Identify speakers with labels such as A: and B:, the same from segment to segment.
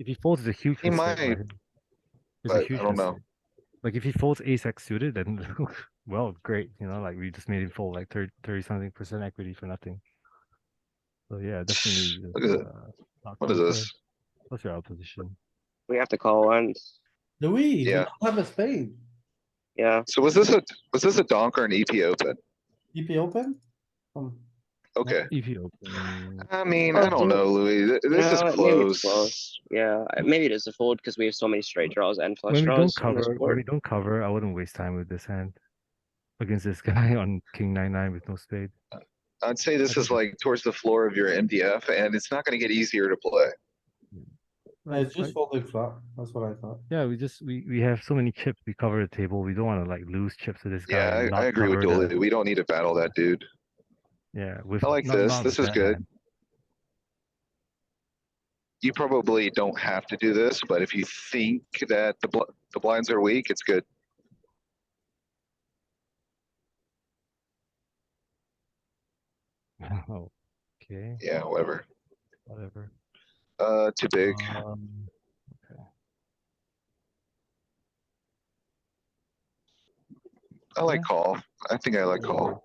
A: If he folds, it's a huge
B: He
A: mistake.
B: might,
A: right? It's
B: but
A: a
B: I
A: huge
B: don't know.
A: mistake. Like if he folds ace X suited, then well, great. You know, like we just made him fold like 30, 30 something percent equity for nothing. So yeah, definitely.
B: Look at
A: uh,
B: it.
A: not
B: What is
A: close, uh,
B: this?
A: What's your opposition?
C: We have to call once.
D: Louis, you
B: Yeah.
D: don't have a spade.
C: Yeah,
B: So was this a, was this a donk or an EP open?
D: EP open? Hmm.
B: Okay. Uh,
A: If you open,
B: I mean, I don't know, Louis. Th- This is
C: No, maybe
B: close.
C: it's close. yeah. I- Maybe it is a fold because we have so many straight draws and
A: when
C: flush
A: we
C: draws.
A: Mm. don't
C: on this
A: cover, when we
C: board.
A: don't cover, I wouldn't waste time with this hand against this guy on king nine nine with no spade.
B: I'd say this is
A: Okay.
B: like towards the floor of your MDF and it's not gonna get easier to play.
D: No, It's just
A: Right.
D: folding flop, that's what I thought.
A: Yeah, we just we we have so many chips. We cover the table. We don't want to like lose chips to this guy.
B: Yeah,
A: and
B: I, I
A: not
B: agree with
A: cover the-
B: Dooley. We don't need to battle that dude.
A: Yeah, with
B: I like
A: not-
B: this.
A: not
B: This
A: with
B: is
A: that
B: good.
A: hand.
B: You probably don't have to do this, but if you think that the bl- the blinds are weak, it's good.
A: Wow. Oh, Okay,
B: Yeah, whatever.
A: whatever.
B: Uh, too big.
A: Um,
B: I like call. I think I like call.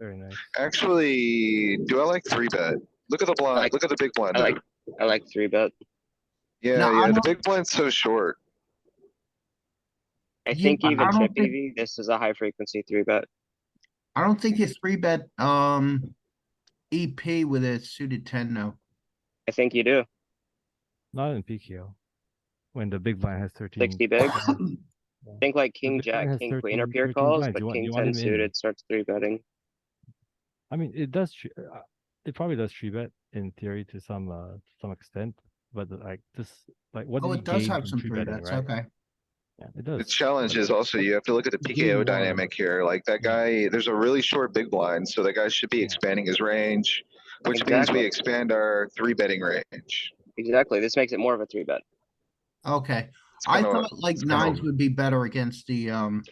A: very nice.
B: Actually, do I like three bet? Look at the blind,
C: like-
B: look at the big blind.
C: I like I like three bet.
B: Yeah,
E: No, I'm
B: yeah, the
E: not-
B: big blind's so short.
C: I
E: Yeah,
C: think
E: but
C: even
E: I don't
C: chip
E: think-
C: EV, this is a high frequency three bet.
E: I don't think you three bet, um, EP with a suited ten, no.
C: I think you do.
A: Not in PKO. When the big blind has thirteen.
C: 60 big? I think like king
A: big blind
C: jack,
A: has
C: king queen are
A: 13
C: pure
A: 13
C: calls,
A: blinds.
C: but
A: You want-
C: king
A: you want
C: ten
A: him in.
C: suited starts three betting.
A: I mean, it does. tr- uh, It probably does three bet in theory to some uh to some extent, but the- like this, like what?
E: Oh,
A: did
E: it
A: he
E: does
A: gain
E: have
A: from
E: some three
A: three-betting,
E: bets,
A: right?
E: okay.
A: Yeah, it
B: The
A: does.
B: challenge is also you have to look at the
A: You do
B: PKO
A: want-
B: dynamic here. Like that guy, there's a really short big blind, so that guy should be
A: Yeah.
B: expanding his range. Which means we
C: Exactly.
B: expand our three betting range.
C: Exactly. This makes it more of a three bet.
E: Okay,
B: It's
E: I
B: kinda-
E: thought like
B: it's kinda-
E: nines would be better against the, um,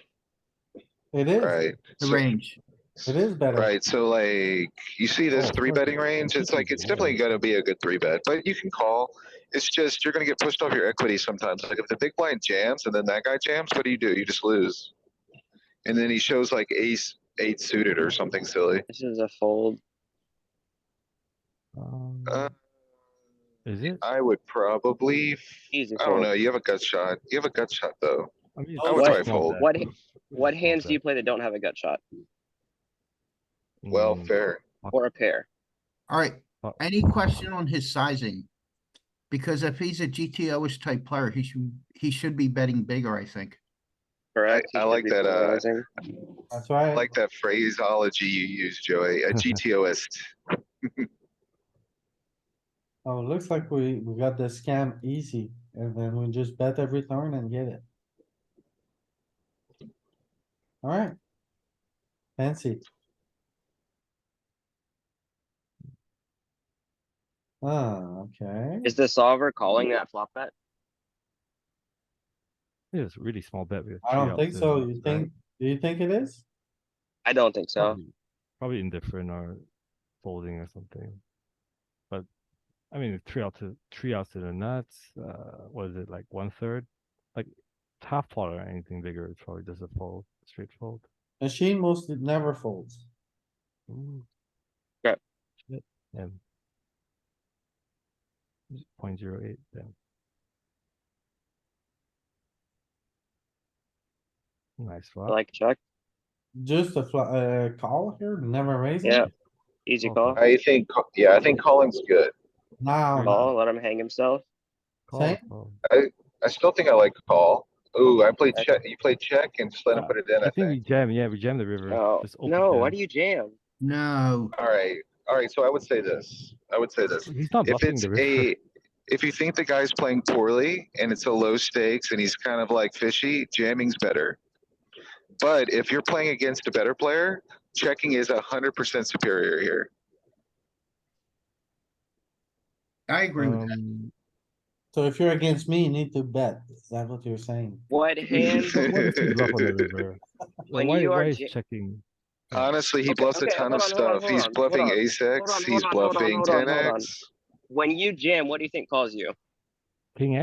D: It is,
B: Right,
E: the
B: so,
E: range.
D: it is better.
B: right, so like, you see this
A: Oh,
B: three
A: perfect.
B: betting range, it's like, it's definitely gonna be a good three bet, but you can call. It's just, you're gonna get pushed off your equity sometimes, like if the big blind jams and then that guy jams, what do you do? You just lose. And then he shows like ace, eight suited or something silly.
C: This is a fold.
A: Um,
B: Uh,
A: is it?
B: I would probably,
C: Easy
B: I don't
C: fold.
B: know, you have a gut shot, you have a gut shot though.
A: I mean,
C: I
A: it's
C: would
A: a
B: probably
A: small
B: fold.
A: bet.
C: What
A: It's a
C: What
A: small
C: hands do you
A: bet.
C: play that don't have a gut shot
B: Well,
A: Mm,
B: fair.
C: or a pair?
E: Alright,
A: Oh.
E: any question on his sizing? Because if he's a GTO-ish type player, he should, he should be betting bigger, I think.
C: Correct.
B: I
C: You should
B: like
C: be
B: that, uh,
C: polarizing.
D: That's right.
B: I like that phraseology you use, Joey, a GTOist.
D: Oh, looks like we, we got the scam easy, and then we just bet every turn and get it. Alright. Fancy. Ah, okay.
C: Is the solver calling that flop bet?
A: It's a really small bet. we have
D: I
A: three
D: don't
A: out
D: think
A: to-
D: so. You
A: right?
D: think, do you think it is?
C: I don't think so.
A: Probably- Probably indifferent or folding or something. But I mean, three out to three out to the nuts. Uh, what is it like one third? Like half pot or anything bigger is probably just a fold, straight fold.
D: Machine mostly never folds.
A: Ooh.
C: Right.
A: Shit. Yeah. Point zero eight. Then. Nice
C: I
A: flop.
C: like check.
D: Just a fla- uh, call here, never raise
C: Yeah.
D: it.
C: Easy
A: Oh,
C: call.
A: fuck.
B: I think, ca- yeah, I think calling's good.
D: Now,
C: Call, let him hang himself.
A: Call,
D: Same.
A: call.
B: I still think I like call. Ooh, I played
C: Okay.
B: check, you played check and just let him
A: Uh,
B: put it in,
A: I
B: I
A: think we
B: think.
A: jam. Yeah, we jam the river.
C: No,
A: Just open
C: Oh, no, why
A: jam.
C: do you jam?
E: No,
B: Alright, alright, so I would say this, I would say this.
A: He's not
B: If
A: bluffing
B: it's
A: the river. Um,
B: a, if you think the guy's playing poorly and it's a low stakes and he's kind of like fishy, jamming's better. But if you're playing against a better player, checking is a hundred percent superior here.
E: I agree with that.
A: Um,
D: so if you're against me, you need to bet. Is that what you're saying?
C: What hand?
A: what if he bluff on the river? Like,
C: When
A: why,
C: you are
A: why is
C: ja-
A: checking?
B: Honestly, he
C: Okay,
B: bluffs a
C: okay,
B: ton of
C: hold on, hold on,
B: stuff.
C: hold
B: He's
C: on, hold
B: bluffing
C: on.
B: ace
C: Hold
B: X,
C: on,
B: he's
C: hold on, hold on,
B: bluffing
C: hold on,
B: ten
C: hold on.
B: X.
C: When you jam, what do you think calls you?
A: King X.